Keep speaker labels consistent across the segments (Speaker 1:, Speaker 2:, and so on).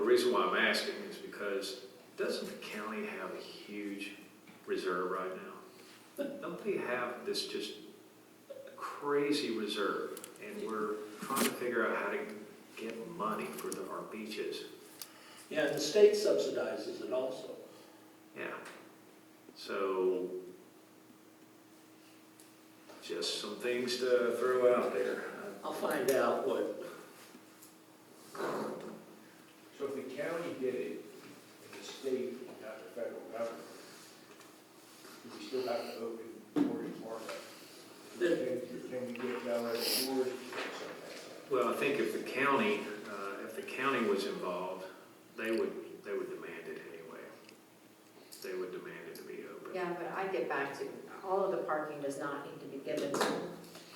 Speaker 1: reason why I'm asking is because doesn't the county have a huge reserve right now? Don't they have this just crazy reserve? And we're trying to figure out how to get money for the- our beaches.
Speaker 2: Yeah, and the state subsidizes it also.
Speaker 1: Yeah. So just some things to throw out there.
Speaker 2: I'll find out what,
Speaker 3: So if the county did it, and the state, not the federal government, do we still have to open Morgan's market?
Speaker 2: the-
Speaker 3: Can can we get Bel Air Tours or something?
Speaker 1: Well, I think if the county, uh, if the county was involved, they would, they would demand it anyway. They would demand it to be open.
Speaker 4: Yeah, but I get back to, all of the parking does not need to be given to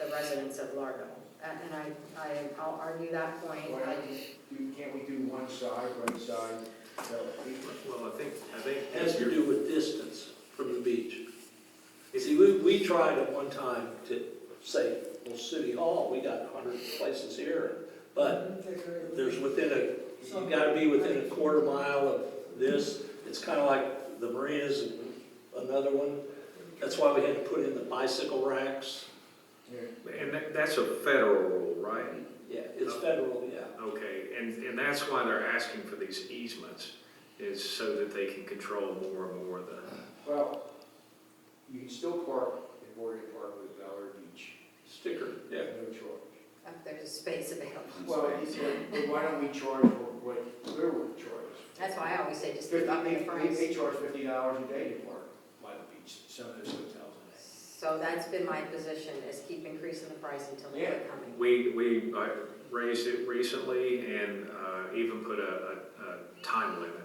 Speaker 4: the residents of Largo. And and I, I, I'll argue that point.
Speaker 3: Why not? Do- Can't we do one side, one side, Bel Air?
Speaker 1: Well, I think, I think.
Speaker 2: it has to do with distance from the beach. You see, we, we tried at one time to say, well, City Hall, we got hundred places here, but there's within a, you gotta be within a quarter mile of this. It's kinda like the marinas and another one. That's why we had to put in the bicycle racks.
Speaker 3: Yeah.
Speaker 1: And that, that's a federal rule, right?
Speaker 2: Yeah, it's federal, yeah.
Speaker 1: Okay, and, and that's why they're asking for these easements, is so that they can control more and more of the,
Speaker 3: Well, you can still park at Morgan Park with Bel Air Beach,
Speaker 2: Sticker, yeah.
Speaker 3: no charge.
Speaker 4: If there's a space available.
Speaker 3: Well, it's like, but why don't we charge what Clearwood charges?
Speaker 4: That's why I always say just keep
Speaker 3: Fifty-
Speaker 4: up
Speaker 3: They,
Speaker 4: the
Speaker 3: they,
Speaker 4: price.
Speaker 3: they charge fifty dollars a day to park by the beach, some of those hotels.
Speaker 4: So that's been my position, is keep increasing the price until they quit coming.
Speaker 1: we, we uh, raised it recently and, uh, even put a, a, a time limit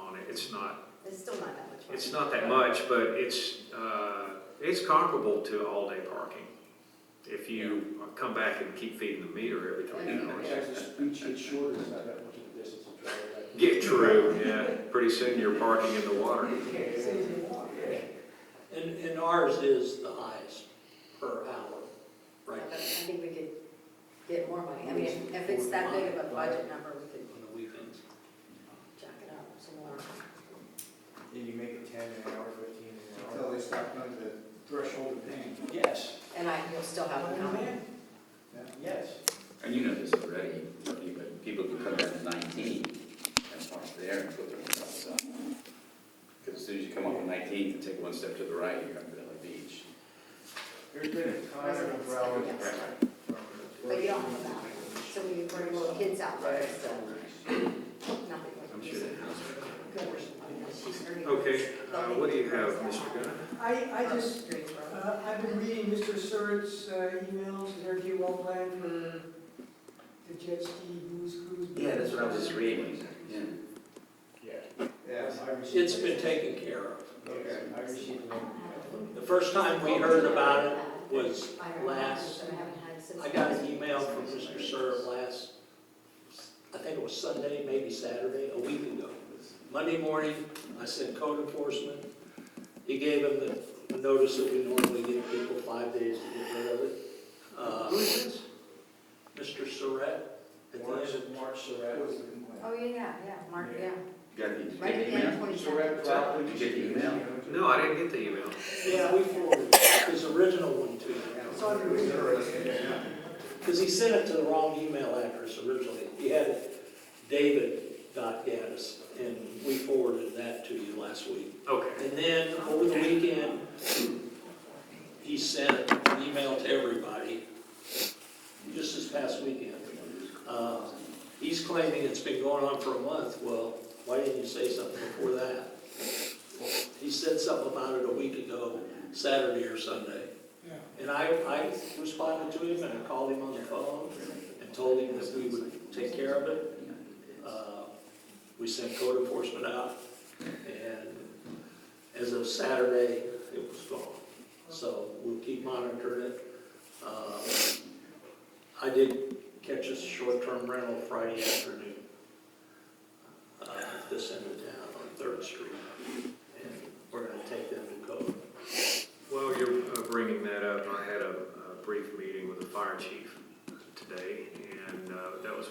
Speaker 1: on it. It's not
Speaker 4: It's still not that much. money.
Speaker 1: It's not that much, but it's, uh, it's comparable to all-day parking. If you come back and keep feeding the meter every three
Speaker 3: And
Speaker 1: hours.
Speaker 3: as the beach gets shorter, it's not that much of a distance to travel back.
Speaker 1: Get true, yeah, pretty soon you're parking in the water.
Speaker 3: Yeah.
Speaker 2: And, and ours is the highest per hour,
Speaker 4: But
Speaker 2: right,
Speaker 4: I think we could get more money. I mean, if- if it's that big of a budget number, we could
Speaker 2: on the weekends.
Speaker 4: jack it up some more.
Speaker 3: And you make it ten an hour, fifteen an
Speaker 5: Until
Speaker 3: hour.
Speaker 5: they stop going to the threshold of pain.
Speaker 3: Yes.
Speaker 4: And I, you'll still have them coming.
Speaker 3: Yes.
Speaker 6: And you know this already, but people can come down to nineteen and park there and put their cars up. Because as soon as you come up on nineteen and take one step to the right, you're on Villa Beach.
Speaker 3: There's been a ton of
Speaker 4: Residents,
Speaker 3: umbrellas.
Speaker 4: yes.
Speaker 3: from-
Speaker 4: But you don't have that. So we bring little kids out there, so nothing
Speaker 6: I'm
Speaker 4: like
Speaker 6: sure
Speaker 4: this.
Speaker 6: that house.
Speaker 4: Good. I mean, she's very-
Speaker 1: Okay, uh, what do you have, Mr. Gunn?
Speaker 7: I, I
Speaker 4: From
Speaker 7: just,
Speaker 4: Streets Road.
Speaker 7: uh, I've been reading Mr. Surratt's uh, emails, is there a deal well planned for the jet ski booze cruise?
Speaker 6: Yeah, that's what I was just reading, yeah.
Speaker 3: Yeah.
Speaker 5: Yeah.
Speaker 3: I received-
Speaker 2: It's been taken care of.
Speaker 3: Yeah, I received one.
Speaker 2: The first time we heard about it was
Speaker 4: I don't know,
Speaker 2: last-
Speaker 4: I haven't had since-
Speaker 2: I got an email from Mr. Serb last, I think it was Sunday, maybe Saturday, a week ago. Monday morning, I sent code enforcement. He gave him the- the notice that we normally give people five days to get rid of it.
Speaker 1: Who
Speaker 2: Uh,
Speaker 1: is this?
Speaker 2: Mr. Surratt, at the
Speaker 3: March,
Speaker 2: end of
Speaker 3: March
Speaker 5: That
Speaker 3: Surratt.
Speaker 5: was the complaint.
Speaker 4: Oh, yeah, yeah, yeah, Mark, yeah.
Speaker 6: You Got the, did you
Speaker 4: Right
Speaker 6: get
Speaker 4: at
Speaker 6: the
Speaker 4: the end of
Speaker 6: email?
Speaker 4: twenty-seven.
Speaker 3: Surratt property.
Speaker 6: Did you get the
Speaker 1: No, I didn't get the email.
Speaker 2: Yeah, we forwarded his original one to him,
Speaker 7: It's on your reading.
Speaker 2: because he sent it to the wrong email address originally. He had it david.gaddis, and we forwarded that to you last week.
Speaker 1: Okay,
Speaker 2: And then, over the weekend, he sent an email to everybody, just this past weekend. Uh, He's claiming it's been going on for a month, well, why didn't you say something before that? He said something about it a week ago, Saturday or Sunday. And I, I responded to him, and I called him on the phone, and told him that we would take care of it. Uh, We sent code enforcement out, and as of Saturday, it was gone. So we'll keep monitoring it. Uh, I did catch a short-term rental Friday afternoon uh, at this end of town on Third Street, and we're gonna take them to code.
Speaker 1: well, you're uh, bringing that up. I had a a brief meeting with the fire chief today, and uh, that was